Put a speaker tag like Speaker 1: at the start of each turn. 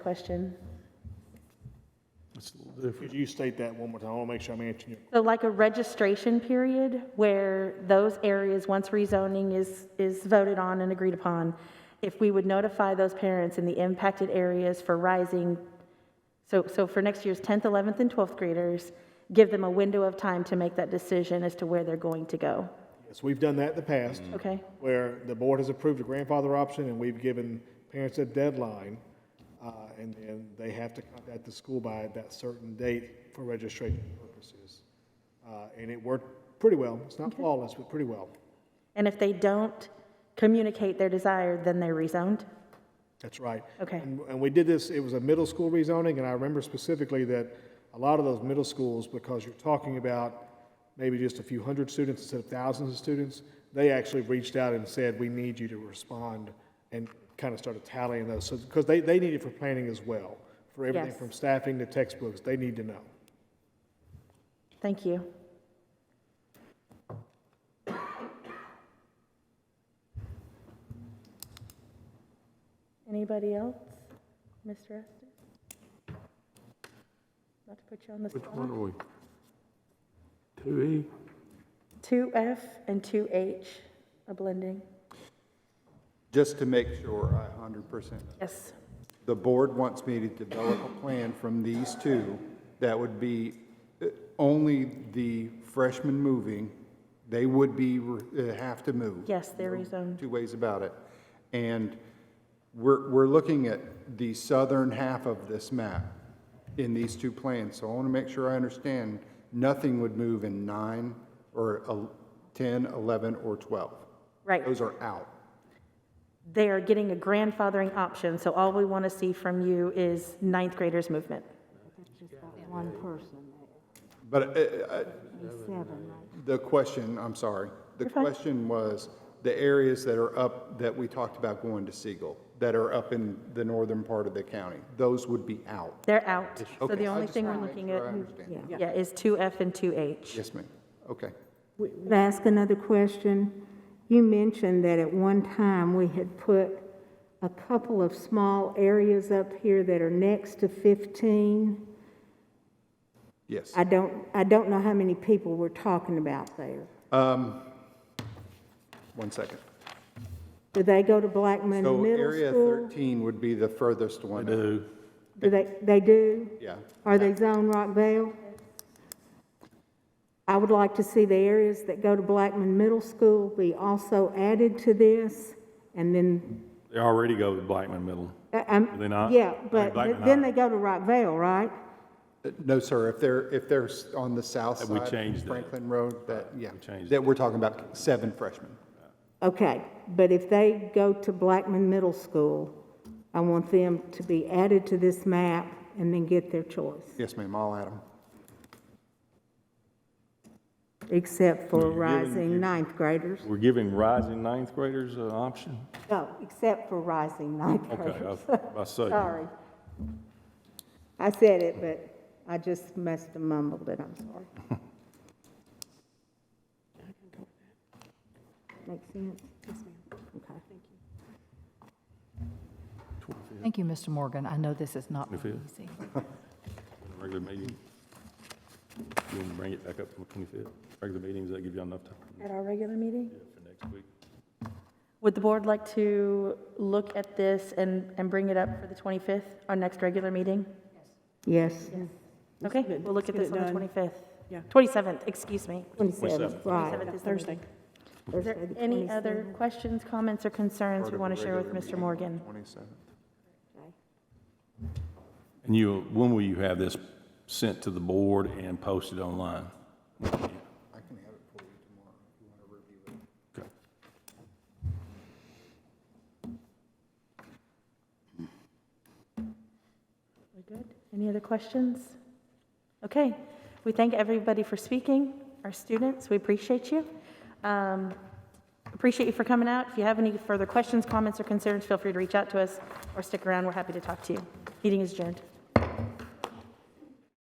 Speaker 1: question.
Speaker 2: Could you state that one more time? I want to make sure I'm answering you.
Speaker 1: So like a registration period where those areas, once rezoning is, is voted on and agreed upon, if we would notify those parents in the impacted areas for rising, so, so for next year's 10th, 11th, and 12th graders, give them a window of time to make that decision as to where they're going to go,
Speaker 2: Yes, we've done that in the past,
Speaker 1: okay?
Speaker 2: where the board has approved a grandfather option, and we've given parents a deadline, uh, and then they have to contact the school by that certain date for registration purposes. Uh, And it worked pretty well. It's not flawless, but pretty well.
Speaker 1: And if they don't communicate their desire, then they're rezoned?
Speaker 2: That's right.
Speaker 1: Okay.
Speaker 2: And and we did this, it was a middle school rezoning, and I remember specifically that a lot of those middle schools, because you're talking about maybe just a few hundred students instead of thousands of students, they actually reached out and said, we need you to respond, and kind of started tallying those, so, because they, they need it for planning as well, for everything
Speaker 1: Yes.
Speaker 2: from staffing to textbooks, they need to know.
Speaker 1: Thank you. Anybody else? Mr. Esther? Not to put you on the
Speaker 3: Which one
Speaker 1: spot.
Speaker 3: are we? Two E?
Speaker 1: 2F and 2H, a blending.
Speaker 4: Just to make sure, I hundred percent.
Speaker 1: Yes.
Speaker 4: The board wants me to develop a plan from these two that would be uh, only the freshmen moving. They would be, re- uh, have to move.
Speaker 1: Yes, they're rezoned.
Speaker 4: Two ways about it. And we're, we're looking at the southern half of this map in these two plans. So I want to make sure I understand, nothing would move in nine or el- 10, 11, or 12.
Speaker 1: Right.
Speaker 4: Those are out.
Speaker 1: They are getting a grandfathering option, so all we want to see from you is ninth graders' movement.
Speaker 5: One person,
Speaker 4: But uh, uh,
Speaker 5: there's seven, right?
Speaker 4: The question, I'm sorry, the
Speaker 1: You're fine.
Speaker 4: question was the areas that are up, that we talked about going to Siegel, that are up in the northern part of the county, those would be out.
Speaker 1: They're out. So
Speaker 4: Okay.
Speaker 1: the
Speaker 4: I
Speaker 1: only
Speaker 4: just
Speaker 1: thing we're
Speaker 4: wanna make
Speaker 1: looking
Speaker 4: sure
Speaker 1: at,
Speaker 4: I understand.
Speaker 1: yeah, is 2F and 2H.
Speaker 4: Yes, ma'am. Okay.
Speaker 5: Could I ask another question? You mentioned that at one time, we had put a couple of small areas up here that are next to 15.
Speaker 4: Yes.
Speaker 5: I don't, I don't know how many people we're talking about there.
Speaker 4: One second.
Speaker 5: Do they go to Blackman
Speaker 4: So
Speaker 5: Middle
Speaker 4: area
Speaker 5: School?
Speaker 4: 13 would be the furthest
Speaker 3: E.
Speaker 4: one. up.
Speaker 3: Do.
Speaker 5: Do they, they do?
Speaker 4: Yeah.
Speaker 5: Are they zone Rockvale? I would like to see the areas that go to Blackman Middle School be also added to this, and then,
Speaker 3: They already go to Blackman Middle.
Speaker 5: I- I'm.
Speaker 3: Do they not?
Speaker 5: um, Yeah,
Speaker 3: Or
Speaker 5: but
Speaker 3: Blackman
Speaker 5: then
Speaker 3: High?
Speaker 5: they go to Rockvale, right?
Speaker 4: Uh, No, sir, if they're, if they're s- on the south
Speaker 3: That we
Speaker 4: side
Speaker 3: changed
Speaker 4: of
Speaker 3: that.
Speaker 4: Franklin Road, that, yeah.
Speaker 3: We changed
Speaker 4: That we're talking about seven freshmen.
Speaker 5: Okay, but if they go to Blackman Middle School, I want them to be added to this map and then get their choice,
Speaker 4: Yes, ma'am, I'll add them.
Speaker 5: except for
Speaker 3: Well, you're giving-
Speaker 5: rising ninth graders.
Speaker 3: We're giving rising ninth graders an option?
Speaker 5: No, except for rising ninth
Speaker 3: Okay,
Speaker 5: graders.
Speaker 3: I- I see.
Speaker 5: Sorry. I said it, but I just must have mumbled it, I'm sorry. Make sense? Yes, ma'am. Okay.
Speaker 6: Thank you, Mr. Morgan. I know this is not
Speaker 3: If it-
Speaker 6: easy.
Speaker 3: Regular meeting. You want to bring it back up on the 25th? Regular meetings, that give you enough time
Speaker 1: At our regular meeting?
Speaker 3: for next week?
Speaker 1: Would the board like to look at this and, and bring it up for the 25th, our next regular meeting?
Speaker 5: Yes,
Speaker 1: Okay, we'll look at
Speaker 7: get
Speaker 1: this
Speaker 7: it
Speaker 1: on the
Speaker 7: done.
Speaker 1: 25th.
Speaker 7: Yeah.
Speaker 1: 27th, excuse me.
Speaker 5: 27th, right.
Speaker 1: 27th is the
Speaker 7: Thursday.
Speaker 1: meeting. Is
Speaker 5: Thursday
Speaker 1: there
Speaker 5: the
Speaker 1: any other questions, comments, or concerns
Speaker 4: Part
Speaker 1: you
Speaker 4: of
Speaker 1: want to
Speaker 4: the
Speaker 1: share with
Speaker 4: regular
Speaker 1: Mr.
Speaker 4: meeting,
Speaker 1: Morgan?
Speaker 4: 27th.
Speaker 3: And you, when will you have this sent to the board and posted online?
Speaker 4: I can have it for you tomorrow if you want to review it.
Speaker 3: Okay.
Speaker 1: We're good. Any other questions? Okay. We thank everybody for speaking, our students. We appreciate you. Um, appreciate you for coming out. If you have any further questions, comments, or concerns, feel free to reach out to us or stick around. We're happy to talk to you. Meeting is adjourned.